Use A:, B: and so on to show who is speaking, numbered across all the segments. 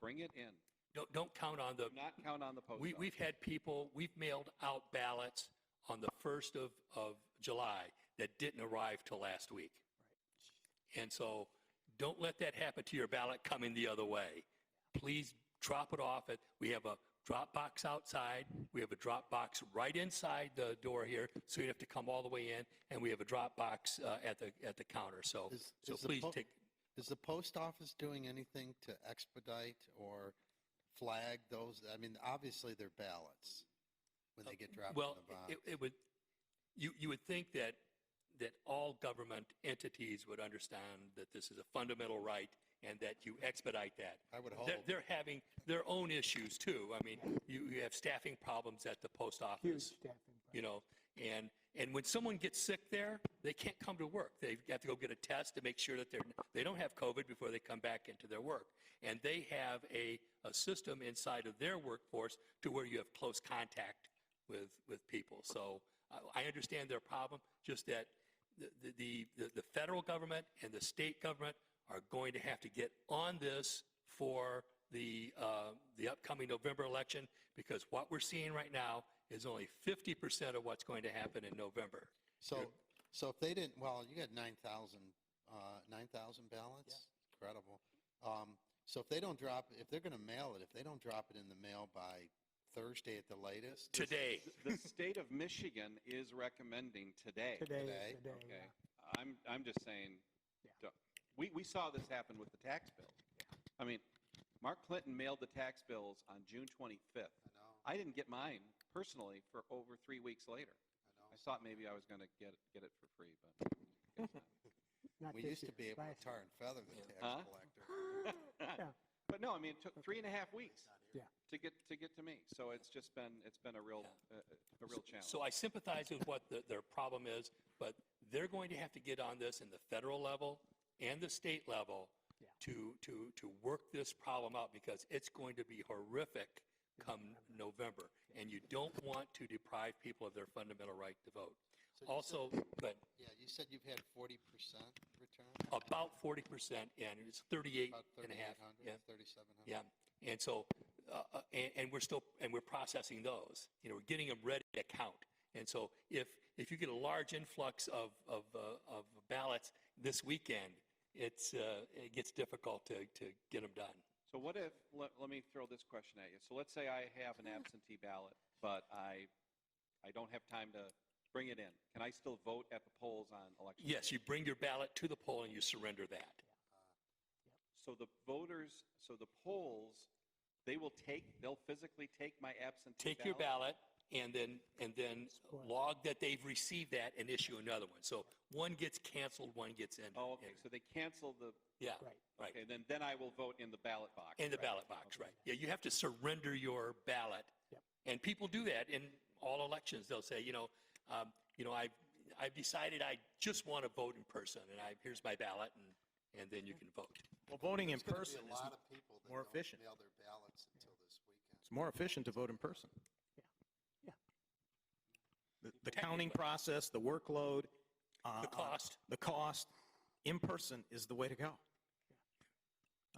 A: Bring it in.
B: Don't, don't count on the,
A: Do not count on the post
B: we,
A: office.
B: we've had people, we've mailed out ballots on the 1st of, of July that didn't arrive till last week. And so don't let that happen to your ballot coming the other way. Please drop it off at, we have a drop box outside. We have a drop box right inside the door here, so you have to come all the way in. And we have a drop box uh, at the, at the counter. So,
C: Is-
B: so
C: is the
B: please
C: po-
B: take,
C: Is the post office doing anything to expedite or flag those? I mean, obviously they're ballots when they get dropped
B: Uh,
C: in
B: Well,
C: the box.
B: it, it would, you, you would think that, that all government entities would understand that this is a fundamental right and that you expedite that.
C: I would
B: They're,
C: hope.
B: they're having their own issues too. I mean, you, you have staffing problems at the post
D: Huge
B: office,
D: staffing. problem.
B: you know, and, and when someone gets sick there, they can't come to work. They have to go get a test to make sure that they're, they don't have COVID before they come back into their work. And they have a, a system inside of their workforce to where you have close contact with, with people. So uh, I, I understand their problem, just that the, the- the, the, the federal government and the state government are going to have to get on this for the, uh, the upcoming November election, because what we're seeing right now is only 50% of what's going to happen in November.
C: So, so if they didn't, well, you got 9,000, uh, 9,000 ballots? Incredible. Um, So if they don't drop, if they're going to mail it, if they don't drop it in the mail by Thursday at the latest? this-
B: Today,
A: The state of Michigan is recommending today.
D: Today
C: Today,
D: is the day.
A: Okay.
D: yeah.
A: I'm, I'm just saying, don't- we, we saw this happen with the tax bill. I mean, Mark Clinton mailed the tax bills on June 25th.
C: I know,
A: I didn't get mine personally for over three weeks later.
C: I know.
A: I thought maybe I was going to get, get it for free, but. guess not.
D: Not
C: We
D: this
C: used to be
D: year,
C: able to
D: last
C: tar
D: year.
C: and feather the
B: Yeah.
C: tax
A: Huh?
C: collector.
A: But no, I mean, it took three and a half weeks.
D: Yeah.
A: To get, to get to me. So it's just been, it's been a real, uh, a real challenge.
B: So I sympathize with what the- their problem is, but they're going to have to get on this in the federal level and the state level
D: Yeah.
B: to, to, to work this problem out because it's going to be horrific come November. And you don't want to deprive people of their fundamental right to vote.
C: So you said-
B: Also, but
C: Yeah, you said you've had 40% return?
B: about 40% and it's 38
C: About
B: and a half. Yeah.
C: 3,800, 3,700?
B: Yeah, and so, uh, uh, and, and we're still, and we're processing those, you know, we're getting them ready to count. And so if, if you get a large influx of, of, uh, of ballots this weekend, it's, uh, it gets difficult to, to get them done.
A: So what if, let, let me throw this question at you. So let's say I have an absentee ballot, but I, I don't have time to bring it in. Can I still vote at the polls on election? day?
B: Yes, you bring your ballot to the poll and you surrender that.
A: So the voters, so the polls, they will take, they'll physically take my absentee ballot?
B: Take your ballot and then, and then
D: Spoil it.
B: log that they've received that and issue another one. So one gets canceled, one gets in.
A: Oh, okay, so they cancel the,
B: Yeah,
D: Right.
B: right.
A: okay, then, then I will vote in the ballot box.
B: In the
A: right?
B: ballot box, right. Yeah, you have to surrender your ballot.
D: Yep.
B: And people do that in all elections. They'll say, you know, um, you know, I've, I've decided I just want to vote in person and I, here's my ballot and, and then you can vote.
E: Well, voting in
C: There's gonna be
E: person
C: A
E: is,
C: lot of people that
E: more
C: don't
E: efficient.
C: mail their ballots until this weekend.
E: it's more efficient to vote in person.
D: Yeah. Yeah.
E: The, the counting process, the workload. uh,
B: The
E: uh,
B: cost.
E: The cost, in person is the way to go.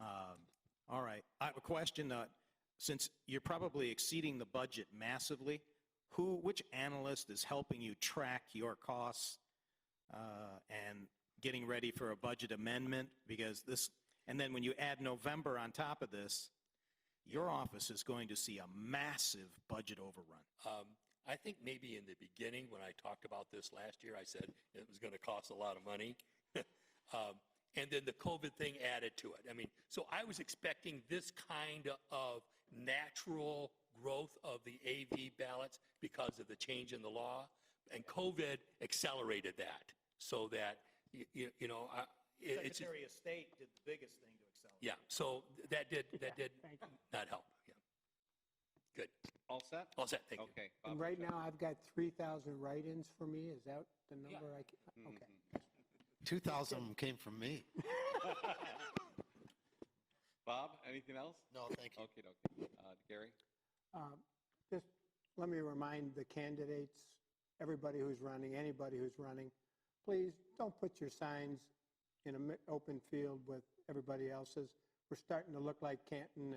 E: Um, All right, I have a question, uh, since you're probably exceeding the budget massively, who, which analyst is helping you track your costs uh, and getting ready for a budget amendment? Because this, and then when you add November on top of this, your office is going to see a massive budget overrun.
B: Um, I think maybe in the beginning, when I talked about this last year, I said it was going to cost a lot of money. Um, And then the COVID thing added to it. I mean, so I was expecting this kind of natural growth of the AV ballots because of the change in the law. And COVID accelerated that so that, y- y- you know, I, it- it's,
E: of State did the biggest thing to accelerate.
B: yeah, so that did, that did
D: Thank you.
B: not help. Yeah. Good.
A: All set?
B: All set. Thank you.
A: Okay.
D: And
A: Bob,
D: right
A: check.
D: now, I've got 3,000 write-ins for me. Is that the number I
C: Mm-hmm.
D: can?
A: Mm-hmm.
D: Okay.
C: 2,000 of them came from me.
A: Bob, anything else?
C: No, thank you.
A: Okay, okay. Uh, Gary?
D: Um, Just let me remind the candidates, everybody who's running, anybody who's running, please don't put your signs in an open field with everybody else's. We're starting to look like Canton